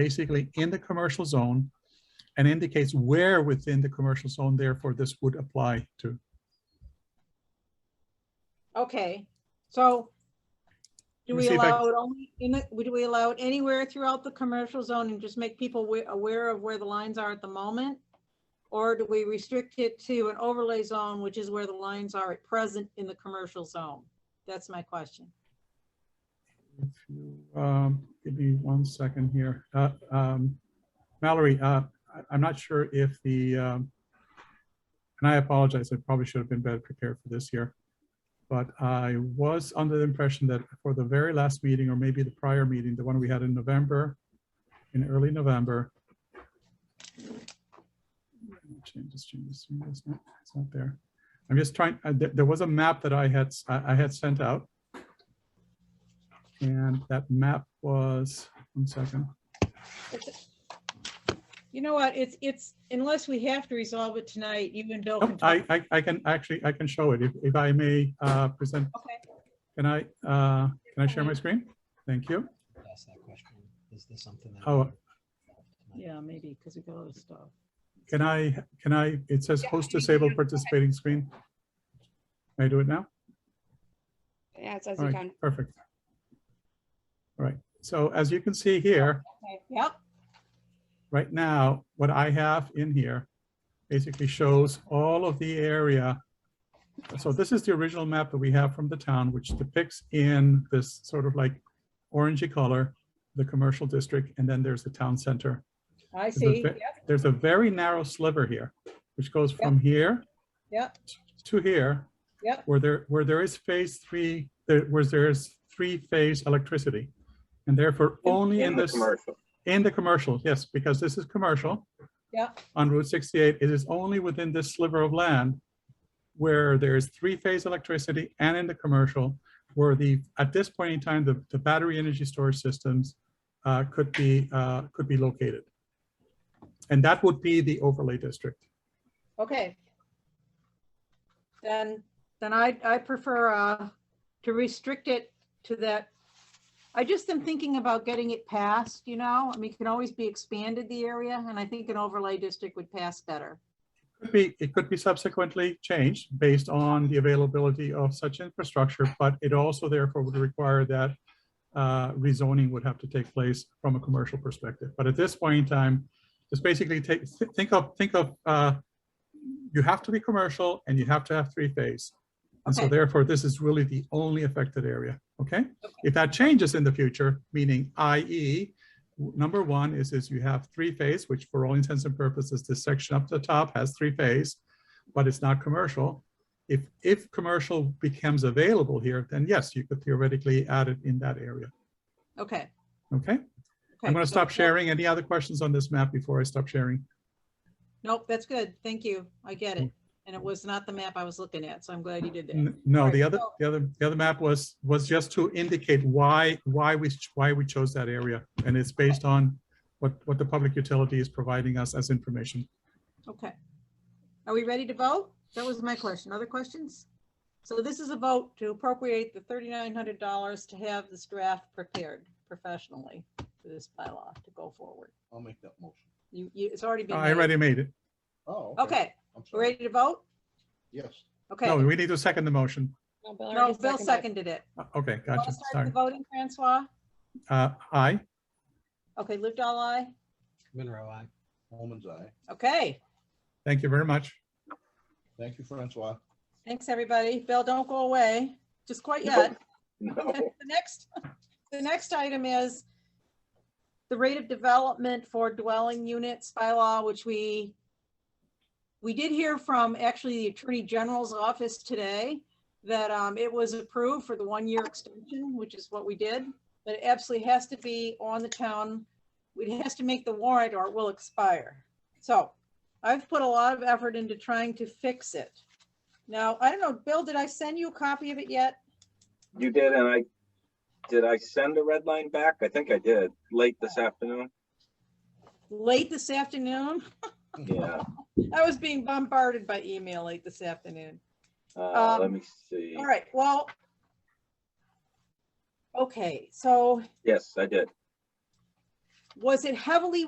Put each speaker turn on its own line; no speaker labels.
basically in the commercial zone and indicates where within the commercial zone therefore this would apply to.
Okay, so
Let
do
me
we
see if I-
allow it only in the, would we allow it anywhere throughout the commercial zone and just make people wa- aware of where the lines are at the moment? Or do we restrict it to an overlay zone, which is where the lines are at present in the commercial zone? That's my question.
If you, um, Give me one second here. Uh, um, Mallory, uh, I- I'm not sure if the, um, and I apologize, I probably should have been better prepared for this here. But I was under the impression that for the very last meeting, or maybe the prior meeting, the one we had in November, in early November. Change this, change this, change this. No, It's not there. I'm just trying, uh, there there was a map that I had, s- I I had sent out. And that map was, one second.
You know what, it's, it's, unless we have to resolve it tonight, you and
Oh,
Bill can
Nope,
talk.
I, I, I can actually, I can show it if, if I may, uh, present,
Okay,
can I, uh, can I share my screen? Thank you.
ask that question. Is this something that?
Oh.
yeah, maybe, because we got other stuff.
Can I, can I, it says
Yeah,
host
you can
disabled
do it. Go ahead.
participating screen. Can I do it now?
Yeah, it says
All
you
right,
can.
perfect. All right, so as you can see here,
Okay, Yep,
right now, what I have in here basically shows all of the area. So this is the original map that we have from the town, which depicts in this sort of like orangey color, the commercial district, and then there's the town center.
I
a
see,
bit-
yep,
There's a very narrow sliver here, which goes from here
yep,
to here,
yep,
where there, where there is phase three, there- where there is three-phase electricity. And therefore, only in
in the
this. In the commercial, yes, because this is commercial.
Yeah.
On Route 68, it is only within this sliver of land where there is three-phase electricity and in the commercial, where the, at this point in time, the, the battery energy storage systems uh, could be, uh, could be located. And that would be the overlay district.
Okay. Then, then I, I prefer uh, to restrict it to that. I just am thinking about getting it passed, you know, I mean, it can always be expanded the area and I think an overlay district would pass better.
Could be, it could be subsequently changed based on the availability of such infrastructure, but it also therefore would require that uh, rezoning would have to take place from a commercial perspective. But at this point in time, just basically take, thi- think of, think of, uh, you have to be commercial and you have to have three phase. And so
Okay.
therefore, this is really the only affected area, okay? If that changes in the future, meaning i.e., w- number one is, is you have three phase, which for all intents and purposes, this section up the top has three phase, but it's not commercial. If, if commercial becomes available here, then yes, you could theoretically add it in that area.
Okay.
Okay, I'm
okay,
going to
so-
stop sharing. Any other questions on this map before I stop sharing?
Nope, that's good. Thank you. I get it. And it was not the map I was looking at, so I'm glad you did that.
Mm. N- No, the
Right,
other,
so-
the other, the other map was, was just to indicate why, why we, ch- why we chose that area. And it's based on what, what the public utility is providing us as information.
Okay. Are we ready to vote? That was my question. Other questions? So this is a vote to appropriate the thirty-nine hundred dollars to have this draft prepared professionally for this bylaw to go forward.
I'll make that motion.
You, you, it's already been.
I
made.
already made it.
Oh.
Okay,
I'm
we're
sorry.
ready to vote?
Yes.
Okay.
No, we need to second the motion.
No, Bill
second.
seconded it.
Uh, Okay,
Want
gotcha,
to start
sorry.
the voting, Francois?
Uh, aye,
Okay, lived all I.
Monroe, I. Holman's eye.
Okay,
thank you very much.
Thank you, Francois.
thanks, everybody. Bill, don't go away, just quite yet. The next, the next item is the rate of development for dwelling units by law, which we, we did hear from actually the Attorney General's office today that um, it was approved for the one-year extension, which is what we did. But it absolutely has to be on the town, it has to make the warrant or it will expire. So I've put a lot of effort into trying to fix it. Now, I don't know, Bill, did I send you a copy of it yet?
You did, and I, did I send a red line back? I think I did, late this afternoon.
late this afternoon.
Yeah,
I was being bombarded by email late this afternoon.
uh,
Um,
let me see.
All right, well. Okay, so
Yes, I did.
was it heavily